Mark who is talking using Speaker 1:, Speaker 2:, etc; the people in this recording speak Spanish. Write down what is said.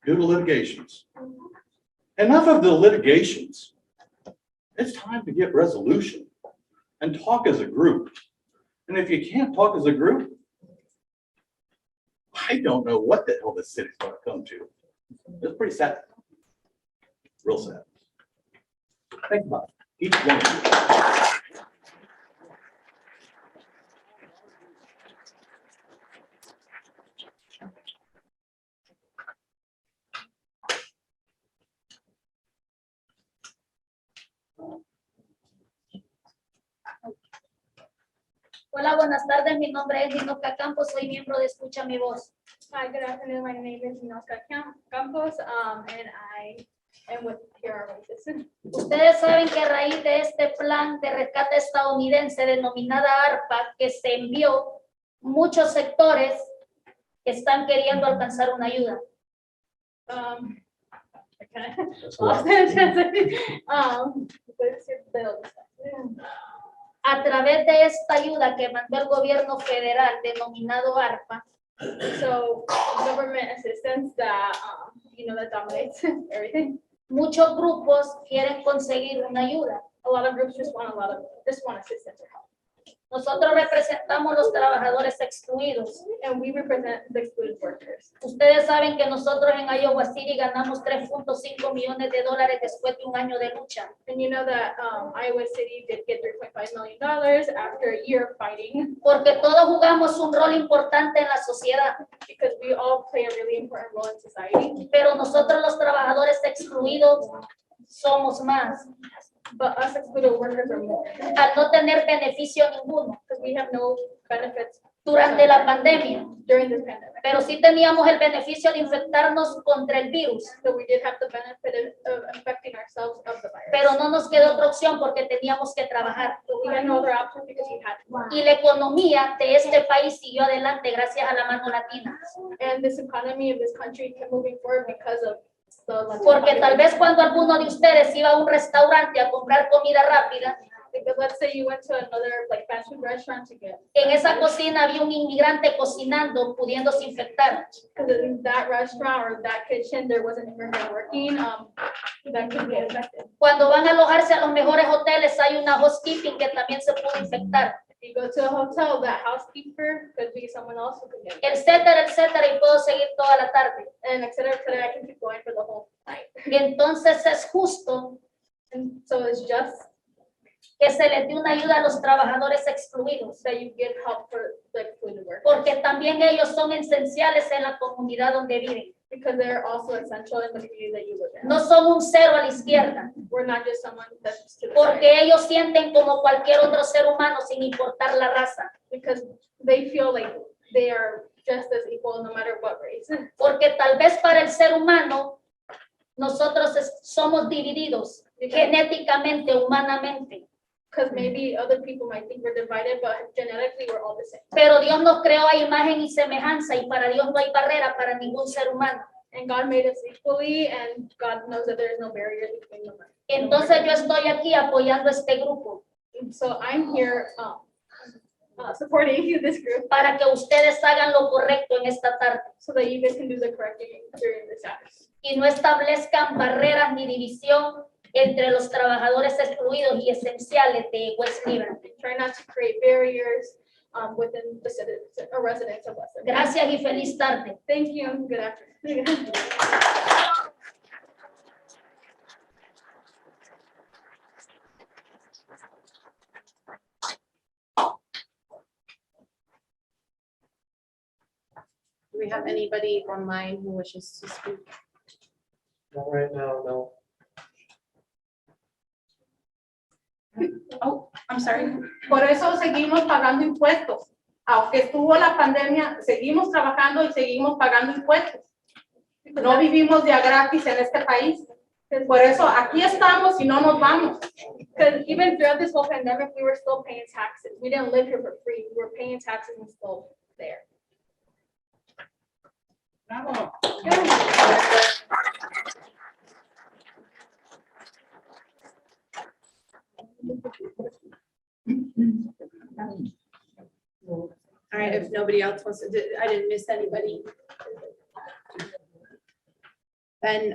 Speaker 1: due to litigations. Enough of the litigations. It's time to get resolution and talk as a group. And if you can't talk as a group, I don't know what the hell this city's gonna come to. It's pretty sad. Real sad. Think about it, each one of you.
Speaker 2: Hola, buenas tardes. Mi nombre es Dinoca Campos. Soy miembro de Escucha Mi Voz.
Speaker 3: Hi, good afternoon. My name is Nosca Campos, um, and I am with PR Racism.
Speaker 2: Ustedes saben que a raíz de este plan de rescate estadounidense denominada ARPA que se envió, muchos sectores están queriendo alcanzar una ayuda.
Speaker 3: Um, I kinda lost it.
Speaker 2: Ah,
Speaker 3: Um, let's see, Bill.
Speaker 2: A través de esta ayuda que mandó el gobierno federal denominado ARPA,
Speaker 3: So government assistance
Speaker 2: uh,
Speaker 3: that, um, you know, that dominates everything.
Speaker 2: muchos grupos quieren conseguir una ayuda.
Speaker 3: A lot of groups just want a lot of, just want assistance or help.
Speaker 2: Nosotros representamos los trabajadores excluidos.
Speaker 3: And we represent the excluded workers.
Speaker 2: Ustedes saben que nosotros en Iowa City ganamos 3.5 millones de dólares después de un año de lucha.
Speaker 3: And you know that, um, Iowa City did get three point five million dollars after a year of fighting
Speaker 2: porque todos jugamos un rol importante en la sociedad,
Speaker 3: because we all play a really important role in society.
Speaker 2: pero nosotros los trabajadores excluidos somos más,
Speaker 3: But us excluded workers are more,
Speaker 2: al no tener beneficio ninguno
Speaker 3: because we have no benefits
Speaker 2: durante la pandemia,
Speaker 3: during this pandemic.
Speaker 2: pero sí teníamos el beneficio de infectarnos contra el virus,
Speaker 3: So we did have the benefit of, of infecting ourselves of the
Speaker 2: pero
Speaker 3: virus.
Speaker 2: no nos quedó otra opción porque teníamos que trabajar.
Speaker 3: But we had no other option because we had to. work.
Speaker 2: Y la economía de este país siguió adelante gracias a la mano latina,
Speaker 3: And this economy of this country kept moving forward because of the. Latino
Speaker 2: porque tal vez
Speaker 3: population.
Speaker 2: cuando alguno de ustedes iba a un restaurante a comprar comida rápida,
Speaker 3: Because let's say you went to another like fast food restaurant to get.
Speaker 2: en esa cocina había un inmigrante cocinando, pudiéndose infectar.
Speaker 3: Because in that restaurant or that kitchen, there wasn't immigrant working, um, that could be infected.
Speaker 2: Cuando van a alojarse a los mejores hoteles, hay una housekeeping que también se puede infectar,
Speaker 3: If you go to a hotel, that housekeeper could be someone else who could get. it.
Speaker 2: etcétera, etcétera, y puedo seguir toda la tarde.
Speaker 3: And et cetera, et cetera, I can keep going for the whole night.
Speaker 2: Entonces es justo
Speaker 3: And so it's just
Speaker 2: que se les dé una ayuda a los trabajadores excluidos,
Speaker 3: that you get help for the excluded workers
Speaker 2: porque también ellos son esenciales en la comunidad donde viven.
Speaker 3: because they're also essential in the community that you live in.
Speaker 2: No son un cero a la izquierda,
Speaker 3: We're not just someone that's just to the side
Speaker 2: porque ellos sienten como cualquier otro ser humano sin importar la raza,
Speaker 3: because they feel like they are just as equal no matter what race.
Speaker 2: porque tal vez para el ser humano nosotros es- somos divididos genéticamente, humanamente.
Speaker 3: Because maybe other people might think we're divided, but genetically we're all the same.
Speaker 2: Pero Dios nos creó a imagen y semejanza y para Dios no hay barrera para ningún ser humano.
Speaker 3: And God made us equally, and God knows that there is no barrier between them.
Speaker 2: Entonces yo estoy aquí apoyando este grupo
Speaker 3: So I'm here um, uh, supporting this group
Speaker 2: para que ustedes hagan lo correcto en esta tarde
Speaker 3: so that you guys can do the correct thing during this hours.
Speaker 2: y no establezcan barreras ni división entre los trabajadores excluidos y esenciales de West Liberty.
Speaker 3: Try not to create barriers um, within the citizens, or residents of West. Liberty.
Speaker 2: Gracias y feliz tarde.
Speaker 3: Thank you, and good afternoon.
Speaker 4: Do we have anybody online who wishes to speak?
Speaker 5: Not right now, no.
Speaker 6: I'm sorry. Por eso seguimos pagando impuestos. Aunque estuvo la pandemia, seguimos trabajando y seguimos pagando impuestos. No vivimos de a gratis en este país. Por eso aquí estamos y no nos vamos.
Speaker 3: Because even throughout this whole pandemic, we were still paying taxes. We didn't live here for free. We were paying taxes and still there.
Speaker 4: All right, if nobody else wants to, did- I didn't miss anybody. And